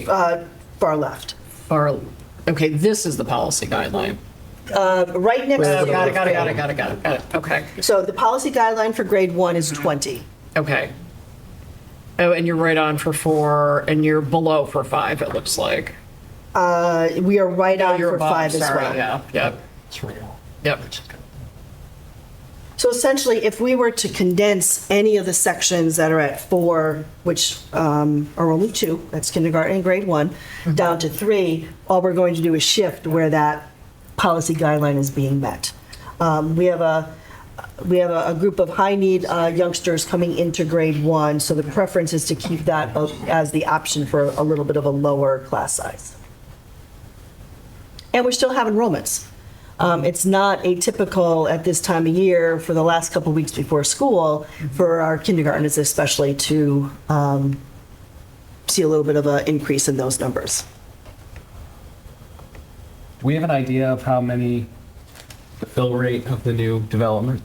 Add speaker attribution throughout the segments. Speaker 1: uh, far left.
Speaker 2: Or, okay, this is the policy guideline.
Speaker 1: Uh, Right next to
Speaker 2: Got
Speaker 1: the.
Speaker 2: it, got it, got it, got it, got it, got it, got it, okay,
Speaker 1: So the policy guideline for grade one is 20.
Speaker 2: okay. Oh, and you're right on for four, and you're below for five, it looks like.
Speaker 1: Uh, We are right on
Speaker 2: Oh, You're
Speaker 1: for
Speaker 2: above,
Speaker 1: five as
Speaker 2: sorry,
Speaker 1: well.
Speaker 2: Yeah, yep, yep,
Speaker 1: So essentially, if we were to condense any of the sections that are at four, which um, are only two, that's kindergarten and grade one, down to three, all we're going to do is shift where that policy guideline is being met. Um, We have a, we have a a group of high-need uh, youngsters coming into grade one, so the preference is to keep that o- as the option for a little bit of a lower class size. And we still have enrollments. Um, It's not atypical at this time of year for the last couple weeks before school for our kindergartners especially to um, see a little bit of an increase in those numbers.
Speaker 3: Do we have an idea of how many, the fill rate of the new development?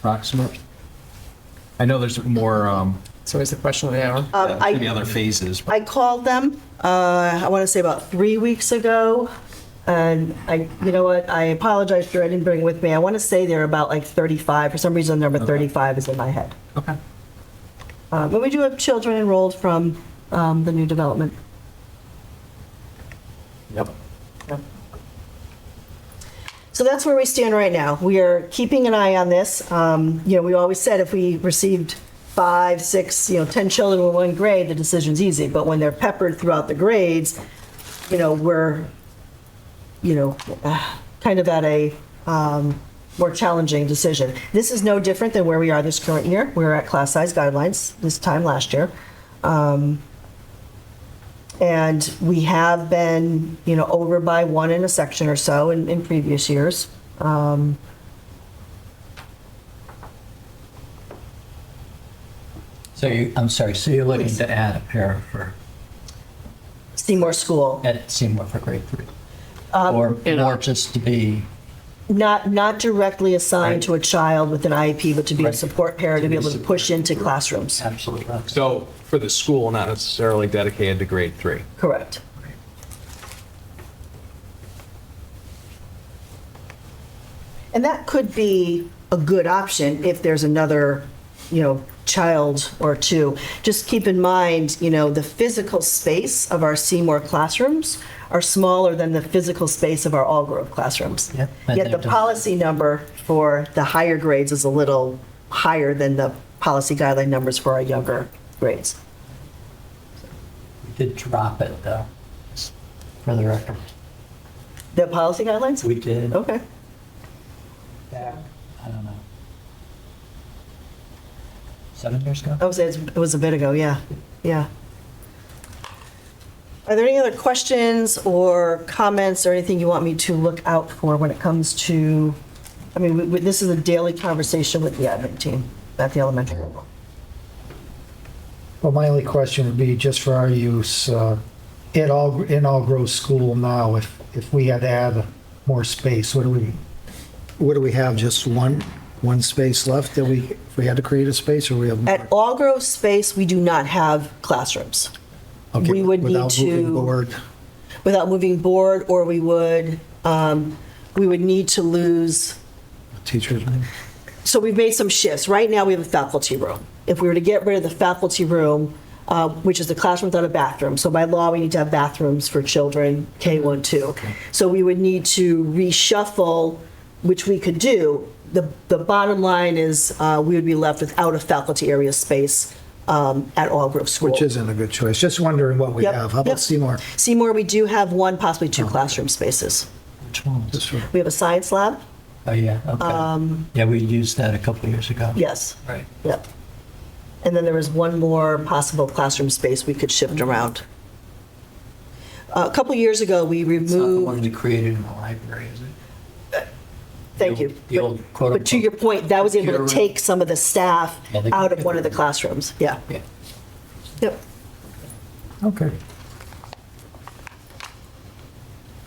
Speaker 3: Approximate? I know there's more, um,
Speaker 2: it's always the question of the hour.
Speaker 1: Um, I-
Speaker 3: maybe other phases. but-
Speaker 1: I called them, uh, I want to say about three weeks ago, and I, you know what, I apologize for I didn't bring it with me. I want to say they're about like 35, for some reason, number 35 is in my head.
Speaker 3: Okay.
Speaker 1: Uh, But we do have children enrolled from um, the new development.
Speaker 3: Yep.
Speaker 1: So that's where we stand right now. We are keeping an eye on this. Um, You know, we always said if we received five, six, you know, 10 children in one grade, the decision's easy. But when they're peppered throughout the grades, you know, we're, you know, ah, kind of at a um, more challenging decision. This is no different than where we are this current year. We We're at class size guidelines this time last year. Um, And we have been, you know, over by one in a section or so in, in previous years. Um,
Speaker 4: So you, I'm sorry, so you're looking to add a para for,
Speaker 1: Seymour School,
Speaker 4: at Seymour for grade three? Or
Speaker 2: you know.
Speaker 4: more just to be,
Speaker 1: not, not directly assigned to a child with an IEP, but to be a
Speaker 4: Right.
Speaker 1: support parent, to be able to push into classrooms.
Speaker 4: absolutely, not.
Speaker 3: So for the school, not necessarily dedicated to grade three.
Speaker 1: Correct. And that could be a good option if there's another, you know, child or two. Just keep in mind, you know, the physical space of our Seymour classrooms are smaller than the physical space of our All Grove classrooms.
Speaker 4: Yep.
Speaker 1: Yet the policy number for the higher grades is a little higher than the policy guideline numbers for our younger grades.
Speaker 4: we did drop it though, for the record.
Speaker 1: The policy guidelines?
Speaker 4: We did
Speaker 1: Okay.
Speaker 4: back, I don't know, seven years ago?
Speaker 1: I would say it's- it was a bit ago, yeah, yeah. Are there any other questions or comments or anything you want me to look out for when it comes to, I mean, we- we- this is a daily conversation with the admin team at the elementary level.
Speaker 5: Well, my only question would be just for our use, uh, at all, in all Grove School now, if, if we had to add more space, what do we, what do we have, just one, one space left that we, if we had to create a space or we have?
Speaker 1: At All Grove Space, we do not have classrooms
Speaker 5: Okay,
Speaker 1: we would need
Speaker 5: Without
Speaker 1: to-
Speaker 5: moving board,
Speaker 1: without moving board, or we would, um, we would need to lose
Speaker 5: teachers,
Speaker 1: so we've made some shifts. Right now, we have a faculty room. If we were to get rid of the faculty room, uh, which is the classroom without a bathroom, so by law, we need to have bathrooms for children, K-1, 2. So we would need to reshuffle, which we could do. The, the bottom line is, uh, we would be left without a faculty area space um, at all group schools.
Speaker 5: which isn't a good choice, just wondering what we
Speaker 1: Yep,
Speaker 5: have. How
Speaker 1: yep.
Speaker 5: about Seymour?
Speaker 1: Seymour, we do have one, possibly two classroom spaces.
Speaker 4: Which one?
Speaker 5: Just for-
Speaker 1: We have a science lab,
Speaker 4: Oh, yeah, okay. Yeah, we used that a couple years ago.
Speaker 1: yes,
Speaker 4: Right.
Speaker 1: yep. And then there was one more possible classroom space we could shift around. A couple years ago, we
Speaker 4: It's not the one
Speaker 1: removed,
Speaker 4: we created in the library, is it?
Speaker 1: thank you.
Speaker 4: The old
Speaker 1: But-
Speaker 4: quote
Speaker 1: But to your
Speaker 4: unquote.
Speaker 1: point, that was able to
Speaker 4: Computer room.
Speaker 1: take some of the staff
Speaker 4: Yeah, they-
Speaker 1: out of one of the classrooms, yeah.
Speaker 4: Yeah.
Speaker 1: Yep,
Speaker 5: Okay.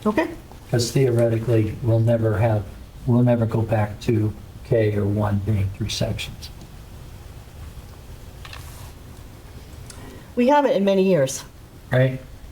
Speaker 1: okay.
Speaker 4: Because theoretically, we'll never have, we'll never go back to K or one being three sections.
Speaker 1: We haven't in many years.
Speaker 3: right?